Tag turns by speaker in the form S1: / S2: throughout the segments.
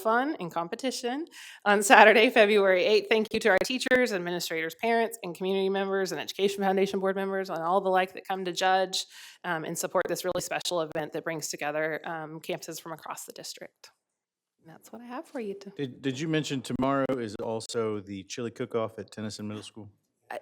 S1: fun and competition on Saturday, February 8th. Thank you to our teachers, administrators, parents, and community members, and Education Foundation board members, and all the like that come to judge um, and support this really special event that brings together um, campuses from across the district. And that's what I have for you. To,
S2: Did, did you mention tomorrow is also the chili cook-off at Tennyson Middle School
S1: I,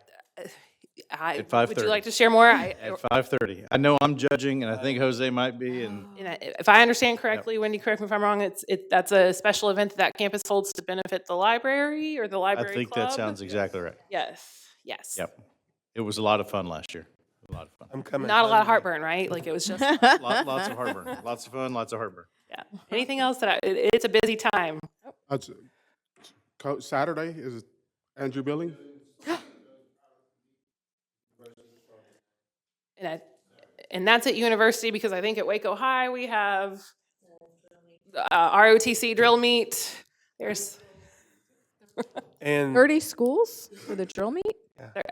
S2: At
S1: would you
S2: 5:30.
S1: like to share more? I,
S2: at five thirty? I know I'm judging, and I
S1: Oh.
S2: think Jose might be, and
S1: And I- Oh. if I understand correctly, Wendy, correct me if I'm wrong, it's, it, that's a special event that that campus holds to benefit the library or the
S2: I
S1: library
S2: think
S1: club?
S2: that sounds exactly right.
S1: Yes, yes.
S2: Yep. It was a lot of fun last year. A lot of fun.
S3: I'm coming.
S1: Not a lot of
S3: Monday.
S1: heartburn, right? Like it was just,
S2: Lot- Um, Lots of heartburn, lots of fun, lots of heartburn.
S1: yeah. Anything else that I, it, it's a busy time.
S3: That's- Coach, Saturday is Andrew Billing?
S1: And I, and that's at university because I think at Waco High, we have uh, ROTC drill meet. There's,
S3: And
S4: 30 schools for the drill meet?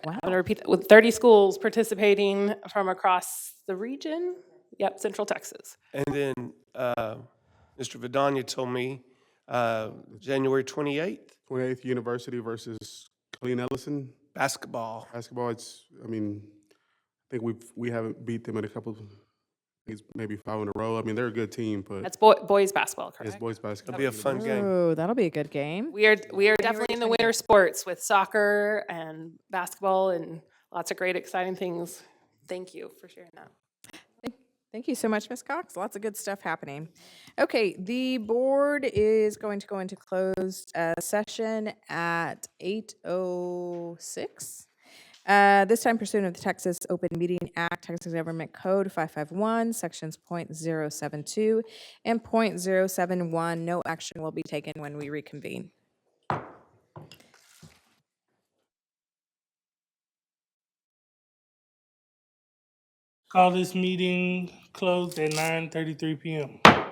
S1: I'm gonna repeat, that, with thirty schools participating from across the region. Yep, Central Texas.
S3: and then uh, Mr. Vidania told me uh, January 28th
S5: Twenty-eighth University versus Colleen Ellison
S3: basketball.
S5: basketball. It's, I mean, I think we've we haven't beat them in a couple, it's maybe five in a row. I mean, they're a good team, but
S1: That's boy, boys basketball,
S5: it's
S1: correct?
S5: boys basketball.
S3: It'll be a fun game.
S4: Oh, that'll be a good game.
S1: We are, we are definitely in the winter sports with soccer and basketball and lots of great exciting things. Thank you for sharing that.
S4: Thank- Thank you so much, Ms. Cox. Lots of good stuff happening. Okay, the board is going to go into closed uh, session at 8:06. Uh, This time pursuant of the Texas Open Meeting Act, Texas Government Code 551, Sections .072 and .071. No action will be taken when we reconvene.
S6: Call this meeting closed at nine thirty-three PM.